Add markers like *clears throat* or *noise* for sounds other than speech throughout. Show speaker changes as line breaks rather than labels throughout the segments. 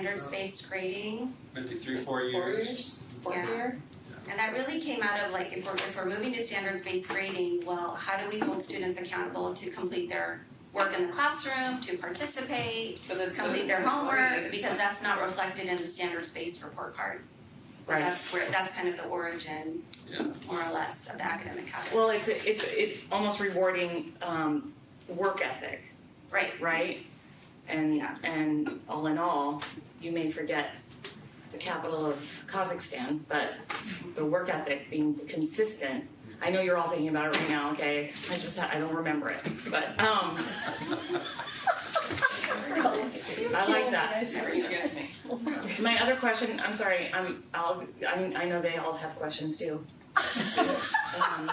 standards-based grading.
maybe three, four years.
Four years, four
Yeah.
year?
And that really came out of like, if we're, if we're moving to standards-based grading, well, how do we hold students accountable to complete their work in the classroom, to participate,
But that's
complete
still
their homework,
oriented.
because that's not reflected in the standards-based report card. So
Right.
that's where, that's kind of the origin,
Yeah.
more or less, of the academic habits.
Well, it's it's it's almost rewarding um, work ethic, *laughs*
Right,
right? And
Yeah.
and all in all, you may forget the capital of Kazakhstan, but the work ethic being consistent. I know you're all thinking about it right now. Okay, I just I don't remember it, but um, I like that.
She gets me.
My other question, I'm sorry, I'm, I'll, I, I know they all have questions too. Um,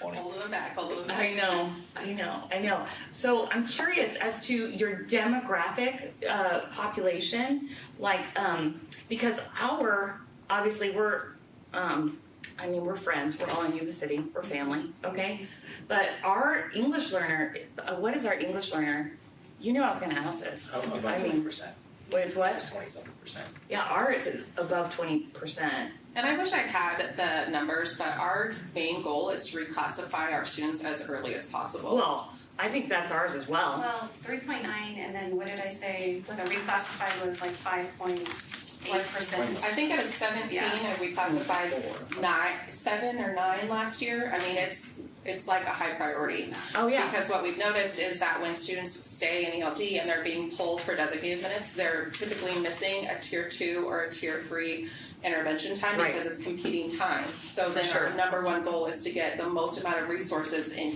Hold them back, hold them back.
I know, I know, I know. So I'm curious as to your demographic, uh, population, like, um, because our, obviously, we're, um, I mean, we're friends, we're all in Yuba City, we're family, okay? But our English learner, uh, what is our English learner? You knew I was gonna ask this.
About
I
twenty
mean,
percent,
wait, it's what?
twenty-seven percent.
Yeah, ours is above twenty percent.
And I wish I had the numbers, but our main goal is to reclassify our students as early as possible.
Well, I think that's ours as well.
well, three point nine, and then what did I say, with a reclassified was like five point eight percent.
I think out of seventeen,
Yeah.
and we classified nine, seven or nine last year. I mean, it's, it's like a high priority.
Oh yeah,
Because what we've noticed is that when students stay in ELD and they're being pulled for designated minutes, they're typically missing a tier two or a tier three intervention time
Right.
because it's competing time. So then
Sure.
our number one goal is to get the most amount of resources in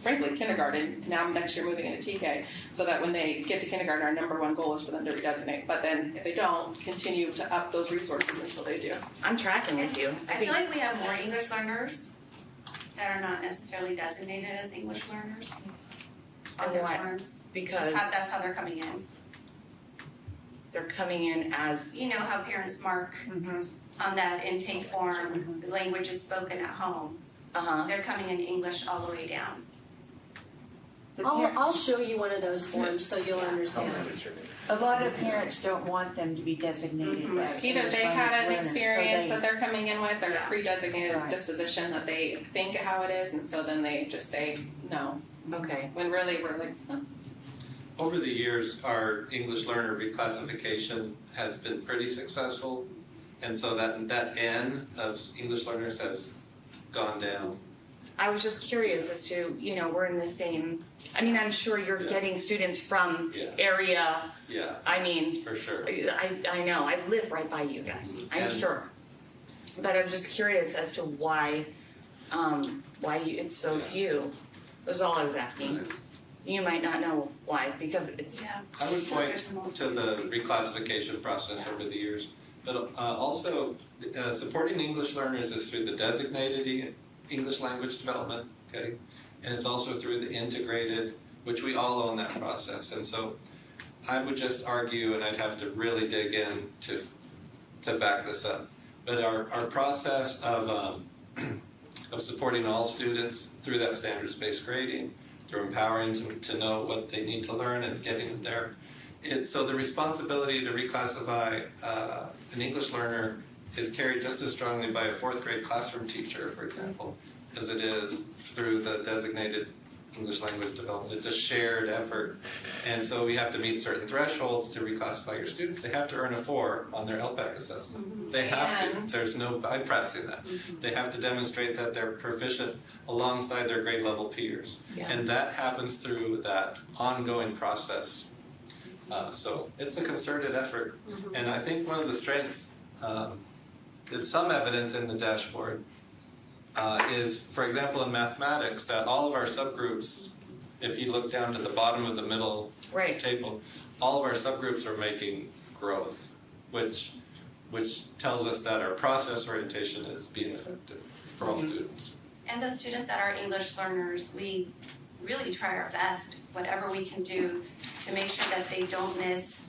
frankly kindergarten. Now next year moving into TK, so that when they get to kindergarten, our number one goal is for them to redesignate. But then if they don't, continue to up those resources until they do.
I'm tracking with you. I
I feel
think
like we have more English learners that are not necessarily designated as English learners on their
Oh, I-
forms.
because
Just how, that's how they're coming in.
they're coming in as
You know how parents mark on that intake form, language is spoken at home.
uh huh.
They're coming in English all the way down.
Oh.
I'll, I'll show you one of those forms so you'll
Yeah.
understand.
A lot of parents don't want them to be designated
Mhm.
as
Either they
English
had an
learners, so
experience
they-
that they're coming in with or a
Yeah.
pre-designated
Right.
disposition that they think how it is, and so then they just say no.
Okay.
When really we're like, "Huh."
Over the years, our English learner reclassification has been pretty successful. And so that, that N of English learners has gone down.
I was just curious as to you know we're in the same. I mean, I'm sure you're
Yeah.
getting students from
Yeah,
area.
yeah,
I mean,
for sure.
I I know I live right by you guys. I'm
And-
sure. But I'm just curious as to why, um, why you, it's so
Yeah.
few. That was all I was asking. You might not know why because it's
Yeah.
I would point
There's multiple
to the
reasons.
reclassification process over the years. But uh, also, uh, supporting English learners is through the designated E- English language development, okay? And it's also through the integrated, which we all own that process. And so I would just argue, and I'd have to really dig in to, to back this up, but our, our process of, um, *clears throat* of supporting all students through that standards-based grading, through empowering them to know what they need to learn and getting them there, it's, so the responsibility to reclassify uh, an English learner is carried just as strongly by a fourth grade classroom teacher, for example, as it is through the designated English language development. It's a shared effort. And so we have to meet certain thresholds to reclassify your students. They have to earn a four on their LPAC assessment. They have
And-
to, there's no bypassing that. They have to demonstrate that they're proficient alongside their grade level peers.
Yeah.
And that happens through that ongoing process uh, so it's a concerted effort. And I think one of the strengths, um, is some evidence in the dashboard, uh, is, for example, in mathematics, that all of our subgroups, if you look down to the bottom of the middle
right.
table, all of our subgroups are making growth, which, which tells us that our process orientation is being effective for all students.
And those students that are English learners, we really try our best, whatever we can do, to make sure that they don't miss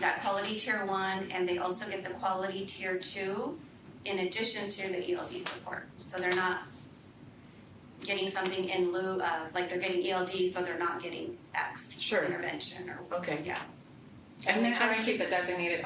that quality tier one and they also get the quality tier two in addition to the ELD support. So they're not getting something in lieu E of, like they're getting ELD, so they're not getting X
Sure.
intervention or,
Okay.
yeah.
And
And
we
then
try
I
and keep the designated